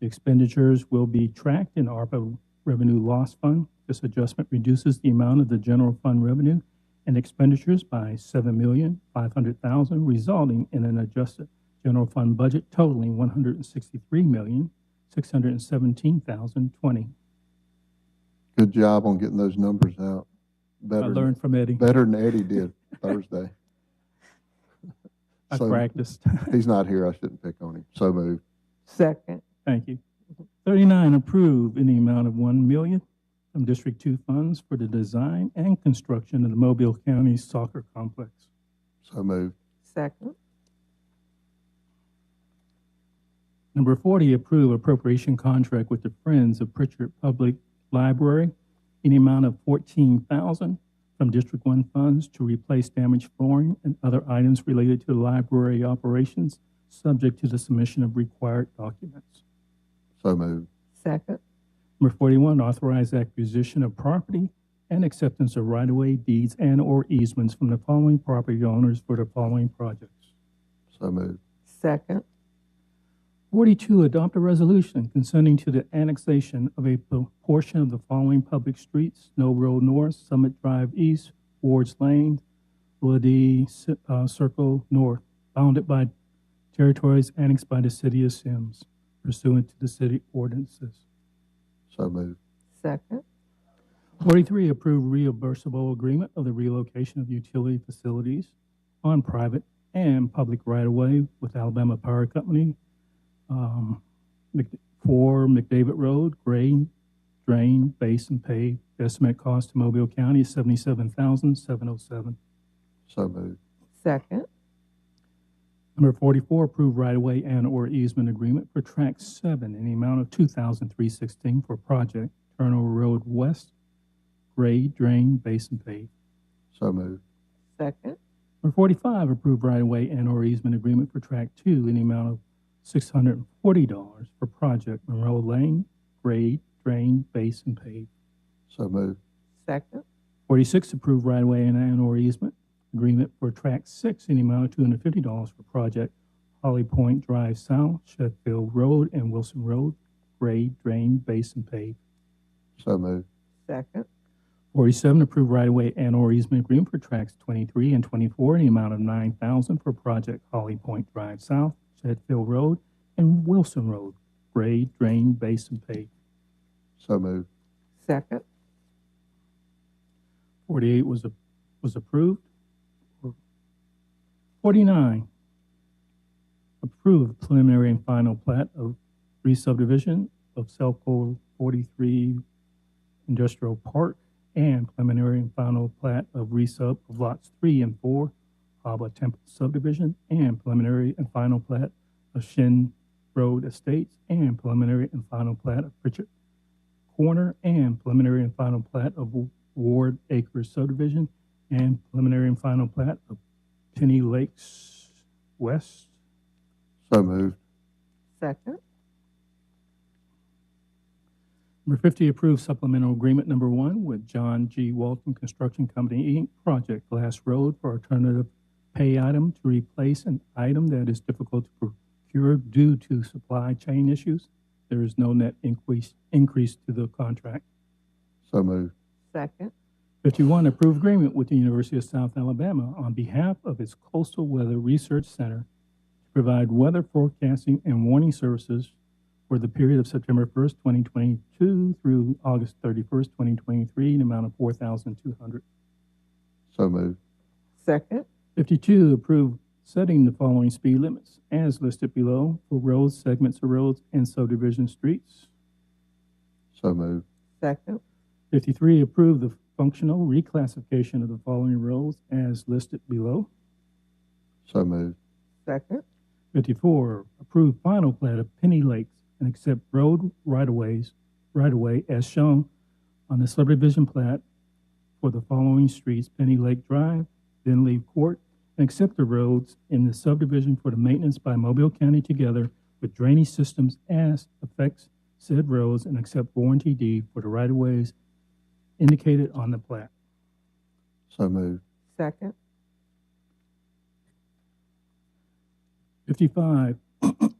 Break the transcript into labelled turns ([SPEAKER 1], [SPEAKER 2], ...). [SPEAKER 1] Expenditures will be tracked in ARPA Revenue Loss Fund. This adjustment reduces the amount of the general fund revenue and expenditures by seven million, five hundred thousand, resulting in an adjusted general fund budget totaling one hundred and sixty-three million, six hundred and seventeen thousand, twenty.
[SPEAKER 2] Good job on getting those numbers out.
[SPEAKER 1] I
[SPEAKER 2] Better,
[SPEAKER 1] learned from Eddie.
[SPEAKER 2] better than Eddie did Thursday.
[SPEAKER 1] I
[SPEAKER 2] So-
[SPEAKER 1] practiced.
[SPEAKER 2] He's not here, I shouldn't pick on him. So moved.
[SPEAKER 3] Second,
[SPEAKER 1] Thank you. Thirty-nine, approve in the amount of one million from District Two funds for the design and construction of the Mobile County Soccer Complex.
[SPEAKER 2] So moved.
[SPEAKER 3] second,
[SPEAKER 1] Number forty, approve appropriation contract with the Friends of Pritchard Public Library in the amount of fourteen thousand from District One funds to replace damaged flooring and other items related to library operations, subject to the submission of required documents.
[SPEAKER 2] So moved.
[SPEAKER 3] second,
[SPEAKER 1] Number 41, authorize acquisition of property and acceptance of right-of-way deeds and/or easements from the following property owners for the following projects.
[SPEAKER 2] So moved.
[SPEAKER 3] second,
[SPEAKER 1] 42, adopt a resolution consenting to the annexation of a po- portion of the following public streets, Snow Road North, Summit Drive East, Ward's Lane, Woody Ci- uh, Circle North, bounded by territories annexed by the city of Sims pursuant to the city ordinances.
[SPEAKER 2] So moved.
[SPEAKER 3] second,
[SPEAKER 1] 43, approve reimbursable agreement of the relocation of utility facilities on private and public right-of-way with Alabama Power Company um, Mc- for McDavid Road, grade, drain, base, and pave. Estimate cost to Mobile County is $77,707.
[SPEAKER 2] So moved.
[SPEAKER 3] second,
[SPEAKER 1] Number 44, approve right-of-way and/or easement agreement for Track 7 in the amount of 2316 for project Turnover Road West, grade, drain, base, and pave.
[SPEAKER 2] So moved.
[SPEAKER 3] second,
[SPEAKER 1] Number 45, approve right-of-way and/or easement agreement for Track 2 in the amount of $640 for project Monroe Lane, grade, drain, base, and pave.
[SPEAKER 2] So moved.
[SPEAKER 3] second,
[SPEAKER 1] 46, approve right-of-way and and/or easement agreement for Track 6 in the amount of $250 for project Holly Point Drive South, Sheffield Road, and Wilson Road, grade, drain, base, and pave.
[SPEAKER 2] So moved.
[SPEAKER 3] second,
[SPEAKER 1] 47, approve right-of-way and/or easement agreement for tracks 23 and 24 in the amount of 9000 for project Holly Point Drive South, Shedfield Road, and Wilson Road, grade, drain, base, and pave.
[SPEAKER 2] So moved.
[SPEAKER 3] second,
[SPEAKER 1] 48 was, a- was approved. 49, approved preliminary and final plat of re-subdivision of Selco 43 Industrial Park and preliminary and final plat of resub of lots 3 and 4, Haba Temple subdivision, and preliminary and final plat of Shin Road Estates, and preliminary and final plat of Pritchard Corner, and preliminary and final plat of Ward Acres subdivision, and preliminary and final plat of Penny Lakes West.
[SPEAKER 2] So moved.
[SPEAKER 3] second,
[SPEAKER 1] Number 50, approve supplemental agreement number one with John G. Walton Construction Company, Inc., Project Glass Road for alternative pay item to replace an item that is difficult to procure due to supply chain issues. There is no net increase, increase to the contract.
[SPEAKER 2] So moved.
[SPEAKER 3] second,
[SPEAKER 1] 51, approve agreement with the University of South Alabama on behalf of its Coastal Weather Research Center to provide weather forecasting and warning services for the period of September 1st, 2022 through August 31st, 2023, in the amount of 4200
[SPEAKER 2] So moved.
[SPEAKER 3] second,
[SPEAKER 1] 52, approve setting the following speed limits as listed below for roads, segments of roads, and subdivision streets.
[SPEAKER 2] So moved.
[SPEAKER 3] second,
[SPEAKER 1] 53, approve the functional reclassification of the following roads as listed below.
[SPEAKER 2] So moved.
[SPEAKER 3] second,
[SPEAKER 1] 54, approve final plat of Penny Lakes and accept road right-of-ways, right-of-way as shown on the subdivision plat for the following streets, Penny Lake Drive, then leave court, and accept the roads in the subdivision for the maintenance by Mobile County together with drainage systems as affects said roads and accept warranty deed for the right-of-ways indicated on the plat.
[SPEAKER 2] So moved.
[SPEAKER 3] second,
[SPEAKER 1] 55,